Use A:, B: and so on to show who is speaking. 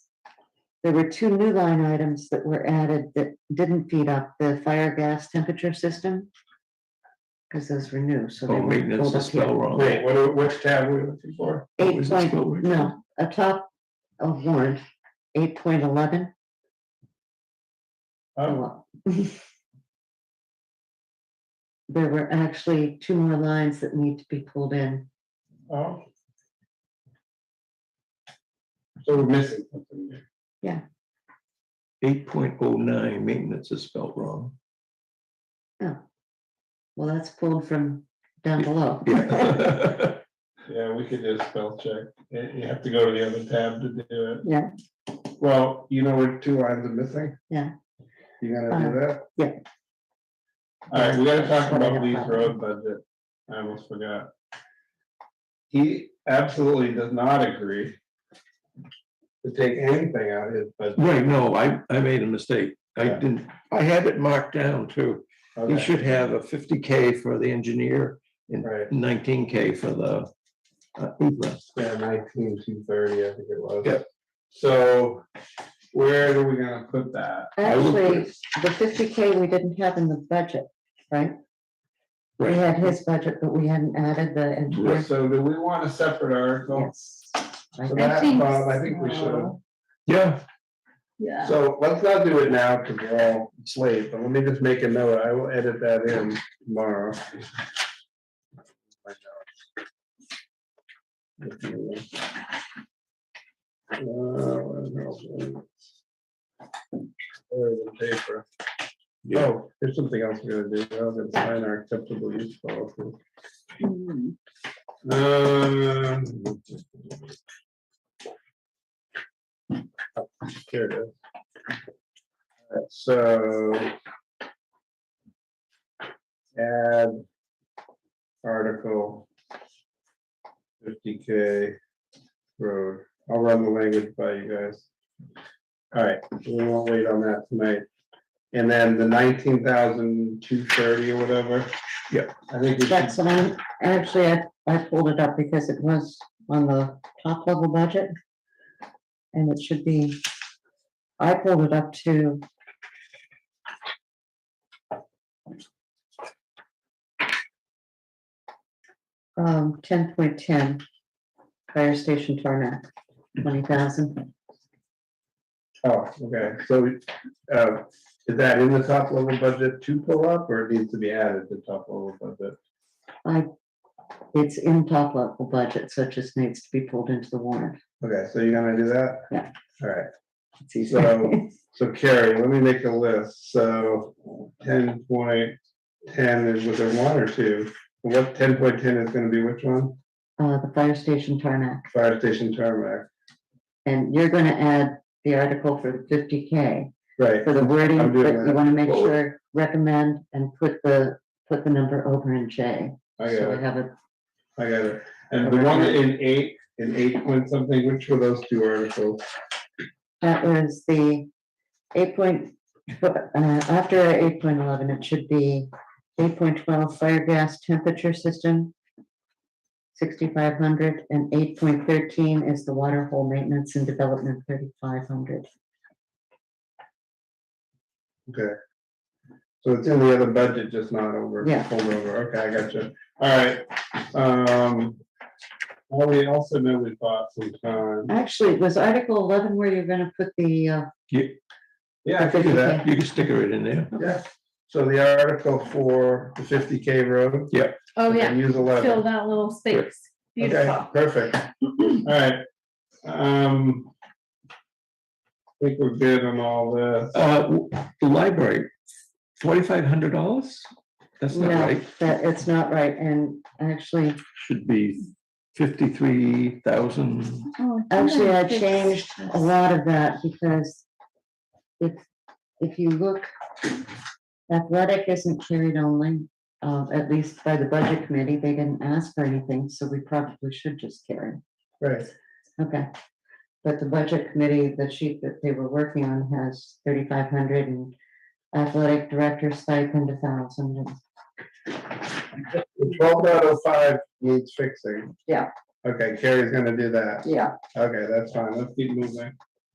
A: There were two new line items that were added that didn't feed up the fire gas temperature system. Because those were new, so they
B: Oh, wait,
A: were
B: that's
A: pulled
B: the
A: up
B: spell
A: here.
B: wrong.
C: Wait, what, are- which tab were you looking for?
B: What
A: Eight
B: was the
A: point,
B: spell word?
A: no, a top of warrant, eight point eleven.
C: Oh,
A: There were actually two more lines that need to be pulled in.
C: oh. So we're missing something there.
B: Eight point oh nine, maintenance is spelled wrong.
A: Well, that's pulled from down below.
B: Yeah.
C: Yeah, we could do a spell check. You you have to go to the other tab to do it.
A: Yeah.
C: Well, you know what, two lines are missing?
A: Yeah. Uh-huh.
C: You gonna do that?
A: yeah.
C: All right, we gotta talk about Lee's road budget. I almost forgot. He absolutely does not agree to take anything out of his budget.
B: Right, no, I, I made a mistake. I
C: Yeah.
B: didn't, I had it marked down too. You
C: Okay,
B: should have a fifty K for the engineer,
C: Right,
B: nineteen K for the uh, Uber.
C: yeah, nineteen, two thirty, I think it was.
B: Yeah.
C: So where are we gonna put that?
B: I will put-
A: Actually, the fifty K we didn't have in the budget, right? We
B: Right,
A: had his budget, but we hadn't added the engineer.
C: So do we want a separate article?
A: Yes. I
C: So
A: think-
C: that,
D: think
C: Bob, I think we should.
D: so.
B: yeah,
D: Yeah.
C: So let's not do it now because we're all slave, but let me just make a note. I will edit that in tomorrow. Uh, where else was it? Where is the paper? Oh, there's something else we're gonna do. I was gonna sign our acceptable use policy.
D: Mm.
C: Um. Here it is. Alright, So. Add. Article. Fifty K. Road, I'll run the language by you guys. Alright, we won't wait on that tonight. And then the nineteen thousand two thirty or whatever.
B: Yep.
C: I think we should
A: That's what I'm, actually, I, I pulled it up because it was on the top level budget. And it should be, I pulled it up to. Um, ten point ten, fire station tarmac, twenty thousand,
C: Oh, okay, so, uh, is that in the top level budget to pull up, or it needs to be added to top level budget?
A: it's in top level budget, so it just needs to be pulled into the warrant.
C: Okay, so you're gonna do that?
A: Yeah.
C: Alright,
A: It's easier.
C: so, so Carrie, let me make a list, so ten point ten is was there one or two? What, ten point ten is gonna be which one?
A: Uh, the fire station tarmac.
C: Fire station tarmac,
A: And you're gonna add the article for the fifty K,
C: right,
A: for the wording,
C: I'm doing
A: but
C: that.
A: you wanna make
B: Well-
A: sure, recommend and put the, put the number over in J.
C: I
A: So
C: got
A: we
C: it,
A: have it,
C: I got it, and the one in eight, in eight point something, which were those two articles?
A: that was the eight point, uh, after eight point eleven, it should be eight point twelve fire gas temperature system. Sixty-five hundred and eight point thirteen is the water hole maintenance and development thirty-five hundred.
C: So it's in the other budget, just not over,
A: Yeah.
C: pulled over, okay, I got you, alright, um. Well, we also know we bought some time,
A: Actually, was article eleven where you're gonna put the, uh,
C: yeah, I figured that,
B: you can stick it in there.
C: yeah, so the article for the fifty K road.
D: Oh,
C: we
D: yeah,
C: can Use
D: fill
C: eleven,
D: that little space.
C: okay,
D: Beautiful.
C: perfect, alright, um. I Think we're good on all this,
B: Uh, w- the library, forty-five hundred dollars? That's not
A: No,
B: right,
A: that, it's not right, and actually,
B: should be fifty-three thousand.
D: Oh,
A: actually, I
D: fix
A: changed a
D: this.
A: lot of that, because if, if you look, athletic isn't carried only, uh, at least by the budget committee, they didn't ask for anything, so we probably should just carry,
C: right,
A: okay. But the budget committee, the sheet that they were working on has thirty-five hundred and athletic director stipend a thousand,
C: the twelve point oh five needs fixing.
A: Yeah.
C: Okay, Carrie's gonna do that,
A: yeah.
C: okay, that's fine, let's keep moving,